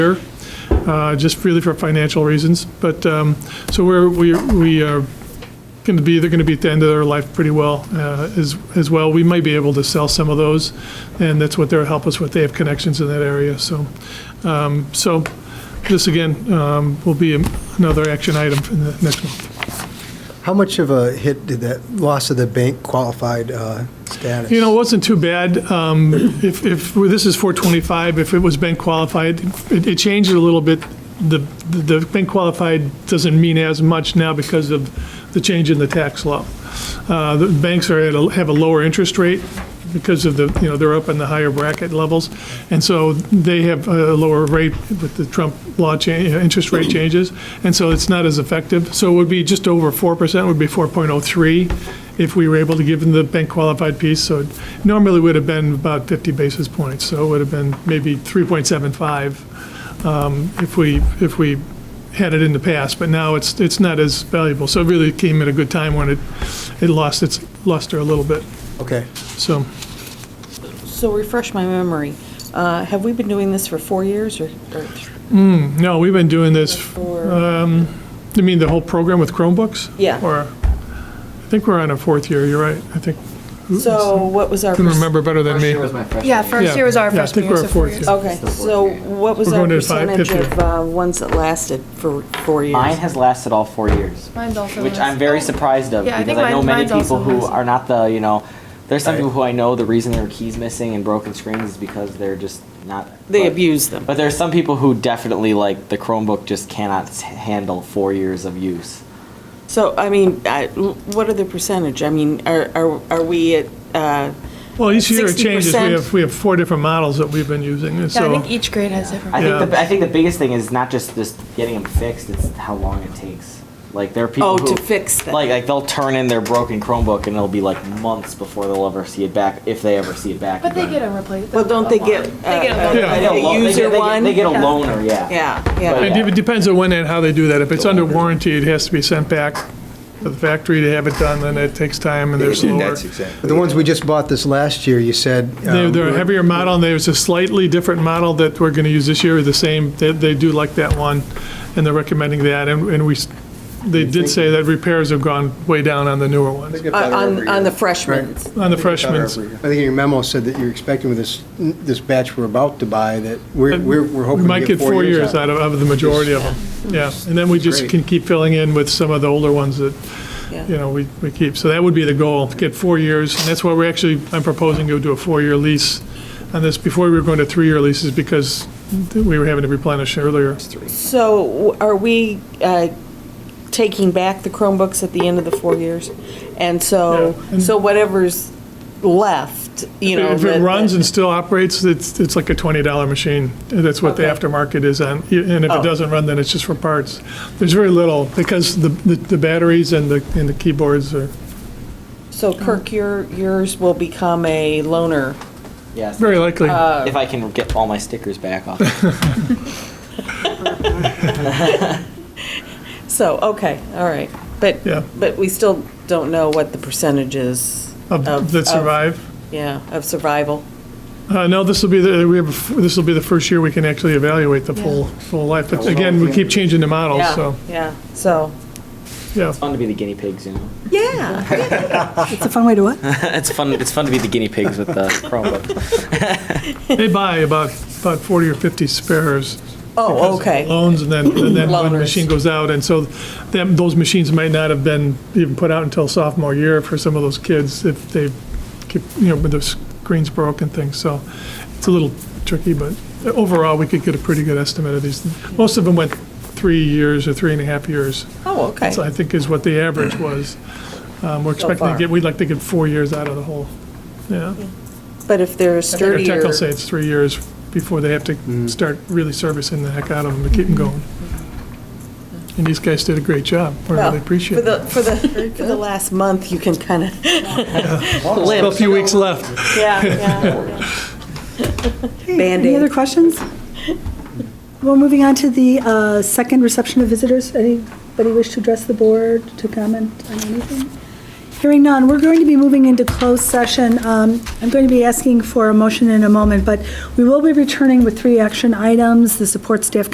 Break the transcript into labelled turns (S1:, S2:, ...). S1: year, uh, just really for financial reasons. But, um, so we're, we we are going to be, they're going to be at the end of their life pretty well uh, as, as well. We might be able to sell some of those, and that's what they'll help us with. They have connections in that area, so. um, So this, again, um, will be another action item in the next month.
S2: How much of a hit did that loss of the bank qualified uh, status?
S1: You know, it wasn't too bad. Um, If, if, well, this is 425, if it was bank qualified, it it changed a little bit. The, the the bank qualified doesn't mean as much now because of the change in the tax law. Uh, The banks are at, a- have a lower interest rate because of the, you know, they're up in the higher bracket levels. And so they have a lower rate with the Trump law change, interest rate changes. And so it's not as effective. So it would be just over 4%, would be 4.03 if we were able to give them the bank qualified piece. So it normally would have been about 50 basis points, so it would have been maybe 3.75 um, if we, if we had it in the past, but now it's, it's not as valuable. So it really came at a good time when it, it lost its luster a little bit,
S2: Okay.
S1: so.
S3: So refresh my memory. Uh, Have we been doing this for four years or? or th-
S1: No, we've been doing this,
S3: or-
S1: you mean the whole program with Chromebooks?
S3: Yeah.
S1: Or, I think we're on our fourth year, you're right, I think,
S3: So what was our?
S1: you can
S3: perc-
S1: remember better than me.
S4: Yeah, first
S1: Yeah.
S4: year was our
S1: Yeah, I
S4: first year.
S1: think we're
S4: so
S1: at
S4: four
S1: fourth
S4: years.
S1: year.
S3: Okay, so what was
S1: We're
S3: our
S1: going to five-
S3: percentage
S1: fifth
S3: of uh, ones that lasted for four
S5: Mine
S3: years?
S5: has lasted all four years,
S4: Mine's also
S5: which
S4: last.
S5: I'm very surprised of
S4: Yeah, I
S5: because
S4: think
S5: I know
S4: mine-
S5: many
S4: mine's also
S5: people who
S4: last.
S5: are not the you know. There's some
S2: Right.
S5: people who I know the reason their keys missing and broken screens is because they're just not.
S3: They
S5: but-
S3: abused them.
S5: But there's some people who definitely like the Chromebook just cannot s- handle four years of use.
S3: So, I mean, I- what are the percentage? I mean, are, are are we at, uh,
S1: Well, each year it changes, we
S3: 60%.
S1: have, we have four different models that we've been using, and
S4: Yeah, I
S1: so.
S4: think each grade has different.
S5: I
S1: Yeah.
S5: think the, I think the biggest thing is not just just getting them fixed; it's how long it takes. Like there are people
S3: oh,
S5: who
S3: to fix them?
S5: like like they'll turn in their broken Chromebook and it'll be like months before they'll ever see it back if they ever see it back.
S4: But they
S5: again.
S4: get a replace.
S3: Well, don't they get?
S4: They get a
S3: uh,
S4: loaner.
S1: Yeah.
S5: They get a
S3: A
S5: lo- they get-
S3: user
S5: they get-
S3: one?
S5: They get a
S4: Yeah.
S5: loaner, yeah.
S3: Yeah, yeah.
S5: But-
S1: It de- It depends on when and how they do that. If it's under warranty, it has to be sent back to the factory to have it done, then it takes time and they're slower.
S6: That's exactly.
S2: But the ones we just bought this last year, you said.
S1: They-
S2: um,
S1: They're a heavier model, and there's a slightly different model that we're going to use this year, the same, they, they do like that one, and they're recommending that, and, and we, s- they did say that repairs have gone way down on the newer ones,
S3: Uh, On, on the freshmen.
S1: on the freshmen.
S2: I think in your memo said that you're expecting with this, this batch we're about to buy, that we're,
S1: Uh,
S2: we're we're
S1: We
S2: hoping
S1: might
S2: to get four years
S1: out
S2: out.
S1: of, of the majority of them, yeah. And then we just
S2: Great.
S1: can keep filling in with some of the older ones that you know, we, we keep. So that would be the goal, get four years, and that's why we're actually, I'm proposing to do a four-year lease on this. Before we were going to three-year leases because we were having to replenish earlier.
S3: So w- are we uh, taking back the Chromebooks at the end of the four years? And so,
S1: Yeah, and-
S3: so whatever's left, you know.
S1: If it
S3: that-
S1: runs
S3: that-
S1: and still operates, it's, it's like a $20 machine. That's what the
S3: Okay.
S1: aftermarket is on. And if
S3: Oh.
S1: it doesn't run, then it's just for parts. There's very little, because the, the the batteries and the, and the keyboards are
S3: So Kirk, your, yours will become a loaner.
S5: Yes.
S1: very likely.
S3: Uh,
S5: Uh, if I can get all my stickers back off.
S3: So, okay, all right. But,
S1: Yeah.
S3: but we still don't know what the percentage is.
S1: Of- That survive.
S3: Yeah, of survival.
S1: Uh, No, this will be, the we have, this will be the first year we can actually evaluate the full, full life. But again, we keep changing the models,
S3: Yeah,
S1: so,
S3: yeah, so,
S1: yeah.
S5: Fun to be the guinea pigs, you know.
S3: yeah.
S7: It's a fun way to what?
S5: it's fun. It's fun to be the guinea pigs with the Chromebook.
S1: They buy about, about 40 or 50 spares.
S3: Oh, okay.
S1: Loans, and then, and then one
S3: Loaners.
S1: machine goes out, and so them, those machines might not have been even put out until sophomore year for some of those kids if they keep, you know, with their screens broke and things, so it's a little tricky, but overall, we could get a pretty good estimate of these. Most of them went three years or three and a half years.
S3: Oh, okay.
S1: So I think is what the average was. Um, We're expecting to
S3: far.
S1: get, we'd like to get four years out of the whole, yeah.
S3: But if
S1: Their
S3: they're
S1: tech will
S3: sturdier,
S1: say it's three years before they have to start really servicing the heck out of them to keep them going. And these guys did a great job. We
S3: well,
S1: really appreciate
S3: for
S1: it.
S3: the, for the, for the last month, you can kind of
S1: Still a few weeks left.
S3: Yeah, yeah.
S7: Any other questions? Well, moving on to the uh, second reception of visitors. Anybody wish to address the board, to comment on anything? Hearing none, we're going to be moving into closed session. Um, I'm going to be asking for a motion in a moment, but we will be returning with three action items, the support staff